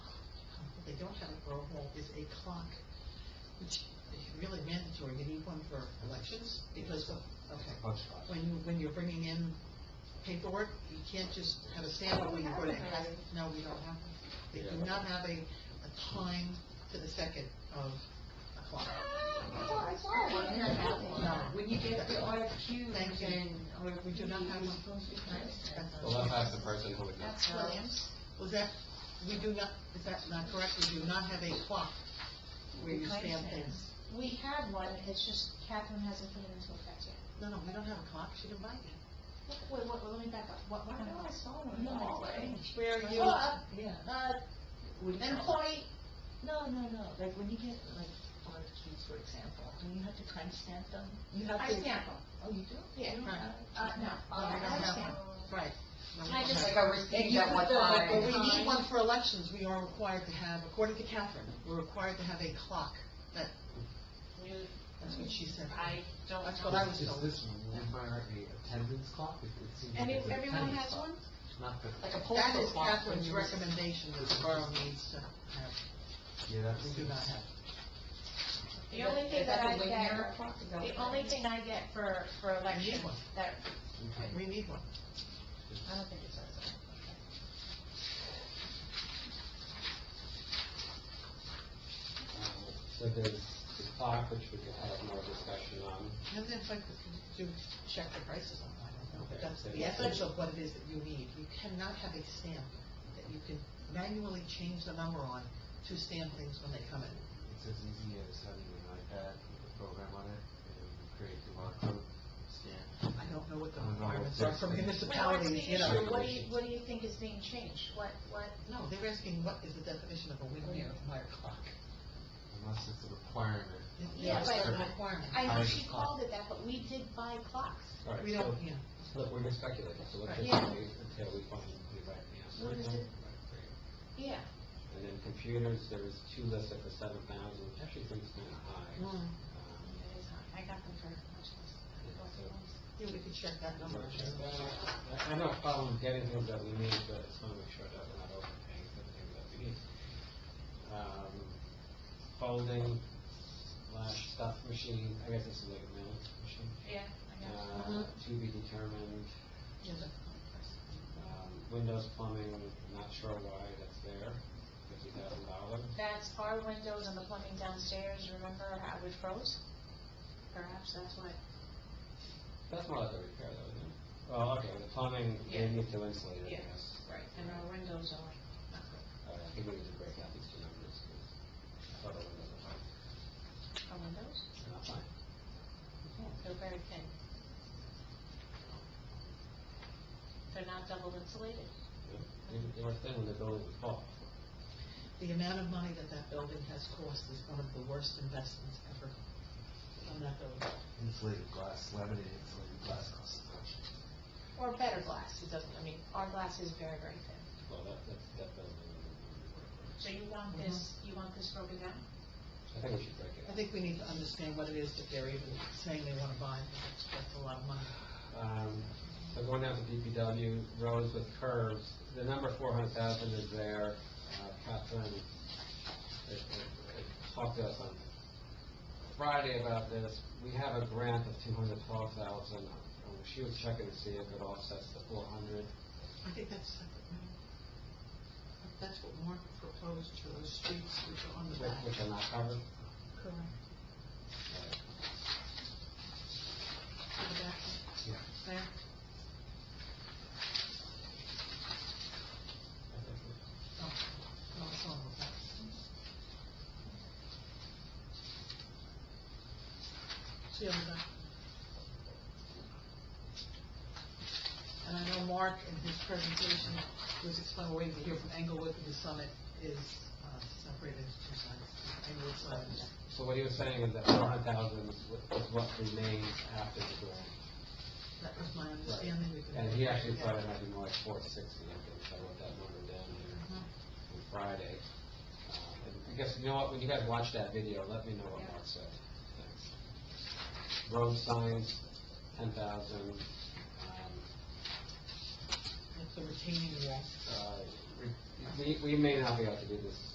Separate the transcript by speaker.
Speaker 1: don't have a roll call is a clock, which is really mandatory. You need one for elections, because, of- okay.
Speaker 2: That's right.
Speaker 1: When you, when you're bringing in paperwork, you can't just have a standard when you put it. No, we don't have, one. they do not have a, a time to the second of a clock.
Speaker 3: I saw one, and I have one.
Speaker 1: No.
Speaker 3: When you get the RFQs
Speaker 1: Thank you.
Speaker 3: and. or-
Speaker 1: We do not have one.
Speaker 3: Nice.
Speaker 2: Well, I'll ask the person who would know.
Speaker 4: That's Williams.
Speaker 1: Was that, we do not, is that not correct? We do not have a clock where you
Speaker 3: Kind of
Speaker 1: stand
Speaker 3: thing.
Speaker 1: things.
Speaker 4: We had one, it's just Catherine hasn't put it into effect yet.
Speaker 1: No, no, we don't have a clock. She didn't buy it.
Speaker 4: Wait, wait, let me back up. What, what?
Speaker 3: I know, I saw one in the hallway.
Speaker 1: Where are you?
Speaker 3: Clock?
Speaker 1: Yeah.
Speaker 3: Uh,
Speaker 1: Would you-
Speaker 3: employee, no, no, no, like, when you get, like, RFQs, for example, do you have to time stamp them? You have
Speaker 4: I
Speaker 3: to-
Speaker 4: stamp 'em.
Speaker 3: Oh, you do?
Speaker 4: Yeah.
Speaker 3: You don't have-
Speaker 4: Uh, no.
Speaker 1: No, we
Speaker 4: I
Speaker 1: don't have
Speaker 4: understand.
Speaker 1: one. Right. No, we
Speaker 4: I
Speaker 1: don't
Speaker 4: just-
Speaker 1: have-
Speaker 3: Like, I was thinking at one time.
Speaker 1: But we need one for elections, we are required to have, according to Catherine, we're required to have a clock, that, that's what she said.
Speaker 5: I don't
Speaker 1: That's
Speaker 5: know.
Speaker 1: what I was
Speaker 2: Is
Speaker 1: told.
Speaker 2: this require a attendance clock? It- it seems like
Speaker 1: Any-
Speaker 2: it's an
Speaker 1: everyone
Speaker 2: attendance
Speaker 1: has
Speaker 2: clock,
Speaker 1: one?
Speaker 2: Not the.
Speaker 3: Like a poll
Speaker 1: That is
Speaker 3: clock.
Speaker 1: Catherine's recommendation that the borough needs to have,
Speaker 2: Yeah, that's.
Speaker 1: we do not have.
Speaker 4: The only thing that I get,
Speaker 3: the
Speaker 4: the only thing I get for, for elections
Speaker 1: one.
Speaker 4: that,
Speaker 2: Okay.
Speaker 1: We need one.
Speaker 4: I don't think it says that.
Speaker 2: Um, So there's the clock, which we could have more discussion on.
Speaker 1: And then, like, do check the prices online, I don't know, but that's the
Speaker 2: Yeah.
Speaker 1: essence of what it is that you need. You cannot have a stamp that you can manually change the number on to stamp things when they come in.
Speaker 2: It's as easy as having an iPad with a program on it and create the barcode scan.
Speaker 1: I don't know what the
Speaker 2: I don't know what
Speaker 1: requirements are for
Speaker 2: that's-
Speaker 1: municipalities, you know.
Speaker 2: issue?
Speaker 4: What do you, what do you think is being changed? What, what?
Speaker 1: No, they're asking what is the definition of a windmere wire clock?
Speaker 2: Unless it's a requirement.
Speaker 4: Yeah,
Speaker 1: It's
Speaker 4: but-
Speaker 1: a requirement.
Speaker 4: I know
Speaker 2: Ours
Speaker 4: she
Speaker 2: is clock.
Speaker 4: called it that, but we did buy clocks.
Speaker 2: All right,
Speaker 1: We don't,
Speaker 2: so-
Speaker 1: yeah.
Speaker 2: Look, we're just speculating, so let's
Speaker 1: Right.
Speaker 2: just
Speaker 4: Yeah.
Speaker 2: wait until we find the right answer.
Speaker 4: What is it? Yeah.
Speaker 2: And then computers, there was two listed for seven thousand, which actually seems kind of high.
Speaker 1: Mm.
Speaker 2: Um,
Speaker 4: I got them for much less. than both of them.
Speaker 1: Yeah, we could check that
Speaker 2: I'm
Speaker 1: number.
Speaker 2: not sure. Well, I I know a problem getting things that we need, but it's want to make sure that we're not overpaying for the things that we need. Um, Folding slash stuff machine, I guess this is like a mail machine.
Speaker 4: Yeah, Uh-huh.
Speaker 2: Uh, to be determined,
Speaker 1: Yeah, that's-
Speaker 2: um, Windows plumbing, not sure why that's there, fifty thousand dollars.
Speaker 4: That's our windows and the plumbing downstairs, remember how we froze? Perhaps that's what,
Speaker 2: That's more like a repair though, isn't it? Well, okay, the plumbing, they
Speaker 4: Yeah.
Speaker 2: need to insulate it, I
Speaker 4: Yeah.
Speaker 2: guess.
Speaker 4: right, and our windows are,
Speaker 2: Uh, I think we need to break out these two numbers, because I thought it was a fine.
Speaker 4: our windows,
Speaker 2: They're not fine.
Speaker 4: they're very thin. They're not double insulated.
Speaker 2: Yeah. They they were thin when the building was bought.
Speaker 1: The amount of money that that building has cost is one of the worst investments ever on that building.
Speaker 2: Insulated glass, laminated insulated glass costs a fortune.
Speaker 4: Or better glass, it doesn't, I mean, our glass is very, very thin.
Speaker 2: Well, that, that, that building, I
Speaker 4: So you want this, you want this broken down?
Speaker 2: think we should break it
Speaker 1: I
Speaker 2: out.
Speaker 1: think we need to understand what it is that they're even saying they want to buy, because that's a lot of money.
Speaker 2: Um, so going down to DPW, roads with curves, the number four hundred thousand is there. Uh, Catherine, it, it- it talked to us on Friday about this. We have a grant of two hundred twelve thousand. Um, She was checking to see if it offsets the four hundred.
Speaker 1: I think that's separate money. That's what Mark proposed for those streets which are on the
Speaker 2: Which
Speaker 1: back.
Speaker 2: which are not covered.
Speaker 1: Correct. To the back,
Speaker 2: Yeah.
Speaker 1: there. Oh, no, it's on the back. See on the back. And I know Mark in his presentation was explaining, we're waiting to hear from Englewood, because Summit is uh, separated into two sides. Englewood side is
Speaker 2: So what he was saying is that four hundred thousand is what- is what remains after the grant.
Speaker 1: That was my understanding. We could-
Speaker 2: And he actually thought it might be more like four sixty, I think, so I wrote that number down here
Speaker 1: Mhm.
Speaker 2: on Friday. Uh, And I guess, you know what, when you guys watch that video, let me know what Mark said. Thanks. Road signs, ten thousand, um,
Speaker 1: That's the retaining wall.
Speaker 2: uh, we- we, we may not be able to do this